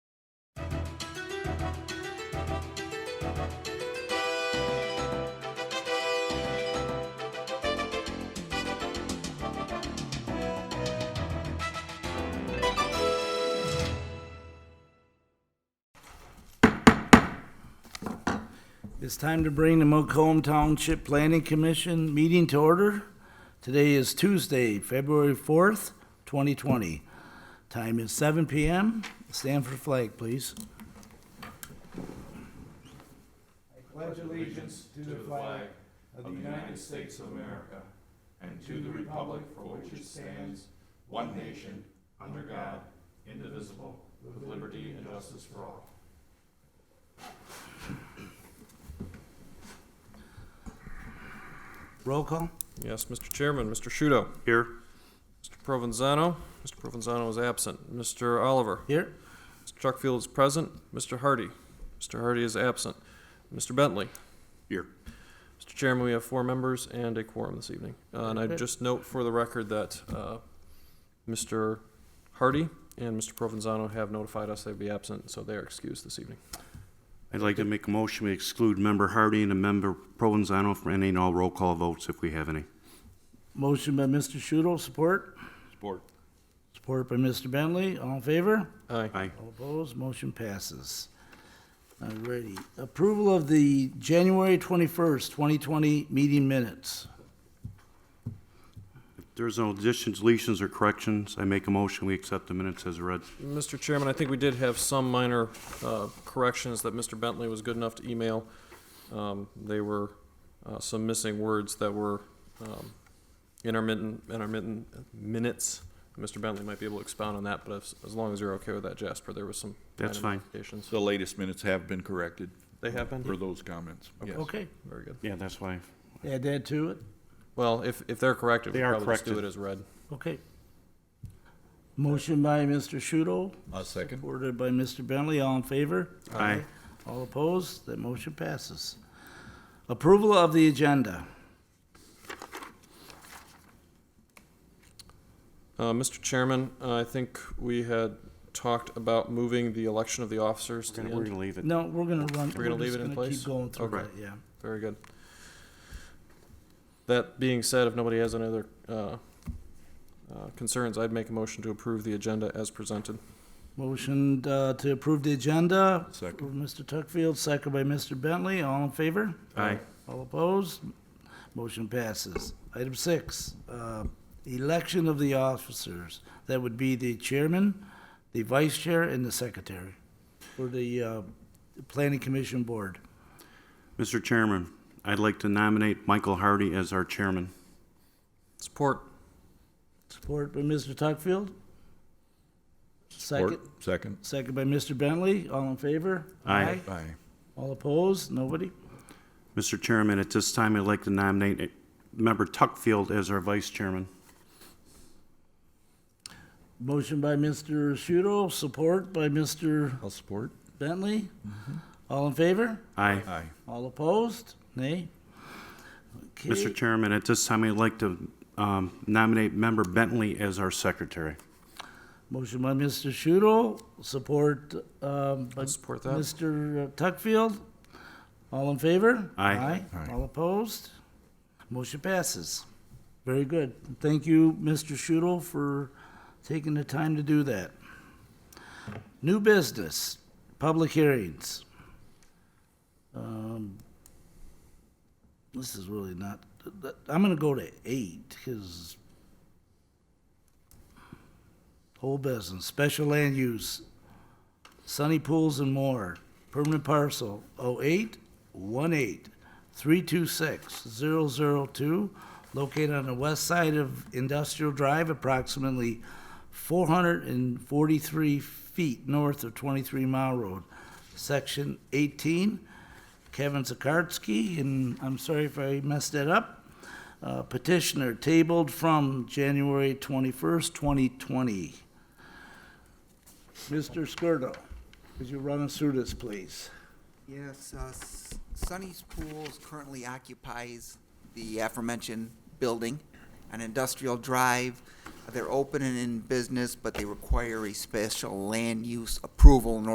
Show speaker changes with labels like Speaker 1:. Speaker 1: It's time to bring the Macomb Township Planning Commission meeting to order. Today is Tuesday, February 4th, 2020. Time is 7 PM. Stand for flag, please. Roll call?
Speaker 2: Yes, Mr. Chairman, Mr. Shudo.
Speaker 3: Here.
Speaker 2: Mr. Provenzano. Mr. Provenzano is absent. Mr. Oliver.
Speaker 1: Here.
Speaker 2: Mr. Chuckfield is present. Mr. Hardy. Mr. Hardy is absent. Mr. Bentley.
Speaker 3: Here.
Speaker 2: Mr. Chairman, we have four members and a quorum this evening. Uh, And I
Speaker 1: Okay.
Speaker 2: just note for the record that uh, Mr. Hardy and Mr. Provenzano have notified us they'd be absent, so they are excused this evening.
Speaker 3: I'd like to make a motion to exclude member Hardy and a member Provenzano from any and all roll call votes if we have any.
Speaker 1: Motion by Mr. Shudo, support.
Speaker 3: Support.
Speaker 1: Support by Mr. Bentley. All in favor?
Speaker 2: Aye.
Speaker 3: Aye.
Speaker 1: All opposed, motion passes. Alrighty, approval of the January twenty-first, twenty twenty meeting minutes.
Speaker 3: If there's no additions, deletions, or corrections, I make a motion, we accept the minutes as read.
Speaker 2: Mr. Chairman, I think we did have some minor uh, corrections that Mr. Bentley was good enough to email. Um, They were uh, some missing words that were um, intermittent, intermittent minutes. Mr. Bentley might be able to expound on that, but as- as long as you're okay with that, Jasper, there was some.
Speaker 3: That's
Speaker 2: minor
Speaker 3: fine.
Speaker 2: modifications.
Speaker 4: The latest minutes have been corrected
Speaker 2: They have been?
Speaker 4: for those comments, yes.
Speaker 1: Okay,
Speaker 2: Very good.
Speaker 3: Yeah, that's why.
Speaker 1: add that to it.
Speaker 2: Well, if, if they're corrected, we
Speaker 3: They are
Speaker 2: probably just do it
Speaker 3: corrected.
Speaker 2: as read.
Speaker 1: Okay. Motion by Mr. Shudo,
Speaker 4: A second?
Speaker 1: supported by Mr. Bentley, all in favor?
Speaker 3: Aye.
Speaker 1: All opposed, that motion passes. Approval of the agenda.
Speaker 2: Uh, Mr. Chairman, I think we had talked about moving the election of the officers to
Speaker 3: We're
Speaker 2: the
Speaker 3: gonna
Speaker 2: end.
Speaker 3: we're gonna leave it.
Speaker 1: No, we're gonna run,
Speaker 2: We're
Speaker 1: we're
Speaker 2: gonna leave
Speaker 1: just
Speaker 2: it in
Speaker 1: gonna keep
Speaker 2: place?
Speaker 1: going through
Speaker 3: Okay.
Speaker 1: that, yeah.
Speaker 2: Very good. That being said, if nobody has any other uh, uh, concerns, I'd make a motion to approve the agenda as presented.
Speaker 1: Motion uh, to approve the agenda.
Speaker 4: Second.
Speaker 1: Mr. Tuckfield, second by Mr. Bentley, all in favor?
Speaker 3: Aye.
Speaker 1: All opposed? Motion passes. Item six, uh, election of the officers. That would be the chairman, the vice chair, and the secretary for the uh, planning commission board.
Speaker 3: Mr. Chairman, I'd like to nominate Michael Hardy as our chairman.
Speaker 2: Support.
Speaker 1: Support by Mr. Tuckfield? Second,
Speaker 4: Or- Second?
Speaker 1: second by Mr. Bentley, all in favor?
Speaker 3: Aye.
Speaker 4: Aye.
Speaker 1: All opposed? Nobody?
Speaker 3: Mr. Chairman, at this time, I'd like to nominate eh, member Tuckfield as our vice chairman.
Speaker 1: Motion by Mr. Shudo, support by Mr.
Speaker 4: I'll support.
Speaker 1: Bentley? All in favor?
Speaker 3: Aye.
Speaker 4: Aye.
Speaker 1: All opposed? Nay?
Speaker 3: Mr.
Speaker 1: Okay.
Speaker 3: Chairman, at this time, I'd like to um, nominate member Bentley as our secretary.
Speaker 1: Motion by Mr. Shudo, support, um, by
Speaker 2: I'll support that.
Speaker 1: Mr. Tuckfield. All in favor?
Speaker 3: Aye.
Speaker 1: Aye.
Speaker 4: Aye.
Speaker 1: All opposed? Motion passes. Very good. Thank you, Mr. Shudo, for taking the time to do that. New business, public hearings. Um, This is really not, I'm gonna go to eight, because whole business, special land use, Sunny Pools and More, permanent parcel 08 18 326 002, located on the west side of Industrial Drive, approximately 443 feet north of 23 Mile Road, Section 18. Kevin Zakarski, and I'm sorry if I messed that up. Uh, Petitioner tabled from January 21st, 2020. Mr. Skirdo, could you run us through this, please?
Speaker 5: Yes, uh, S- Sunny's Pools currently occupies the aforementioned building on Industrial Drive. They're open and in business, but they require a special land use approval in